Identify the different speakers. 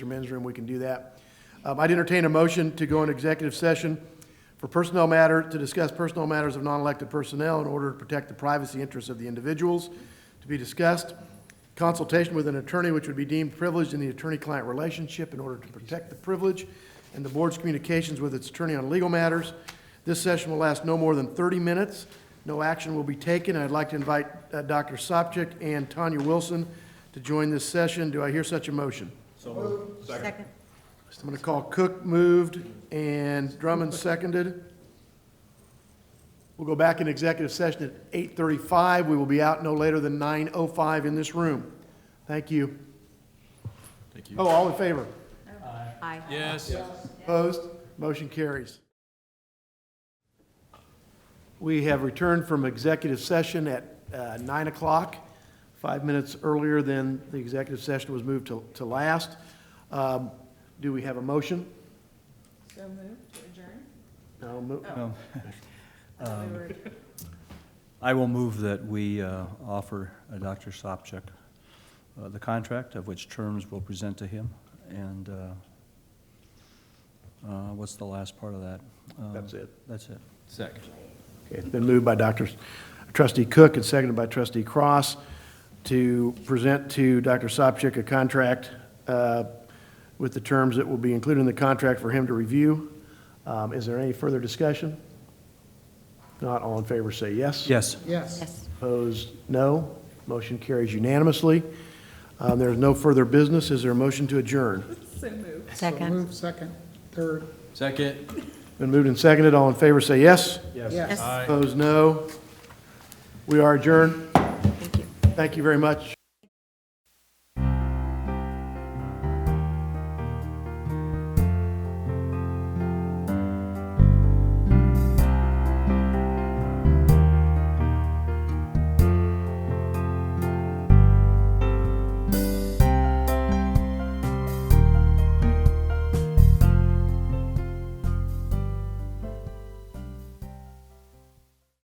Speaker 1: your men's room, we can do that. Um, I'd entertain a motion to go into executive session for personnel matter, to discuss personnel matters of non-elected personnel in order to protect the privacy interests of the individuals to be discussed, consultation with an attorney which would be deemed privileged in the attorney-client relationship in order to protect the privilege, and the board's communications with its attorney on legal matters. This session will last no more than 30 minutes. No action will be taken. I'd like to invite uh, Dr. Sopcich and Tanya Wilson to join this session. Do I hear such a motion?
Speaker 2: Second.
Speaker 1: I'm going to call Cook moved and Drummond seconded. We'll go back in executive session at 8:35. We will be out no later than 9:05 in this room. Thank you. Thank you. Oh, all in favor?
Speaker 2: Aye.
Speaker 3: Yes.
Speaker 1: Opposed? Motion carries. We have returned from executive session at uh, 9 o'clock, five minutes earlier than the executive session was moved to to last. Um, Do we have a motion?
Speaker 2: So moved to adjourn?
Speaker 1: No, mo-
Speaker 2: I thought we were-
Speaker 4: I will move that we uh, offer uh, Dr. Sopcich uh, the contract of which terms we'll present to him, and uh, uh, what's the last part of that? Um,
Speaker 1: That's it.
Speaker 4: That's it.
Speaker 3: Second.
Speaker 1: Okay, It's been moved by Dr. Trustee Cook and seconded by Trustee Cross to present to Dr. Sopcich a contract uh, with the terms that will be included in the contract for him to review. Um, Is there any further discussion? Not all in favor, say yes.
Speaker 4: Yes.
Speaker 2: Yes.
Speaker 1: Opposed, no. Motion carries unanimously. Um, There is no further business. Is there a motion to adjourn?
Speaker 2: Second.
Speaker 5: Move second, third,
Speaker 3: Second.
Speaker 1: Been moved and seconded. All in favor, say yes.
Speaker 5: yes.
Speaker 2: Yes,
Speaker 1: Opposed, no. We are adjourned.
Speaker 2: thank you.
Speaker 1: Thank you very much.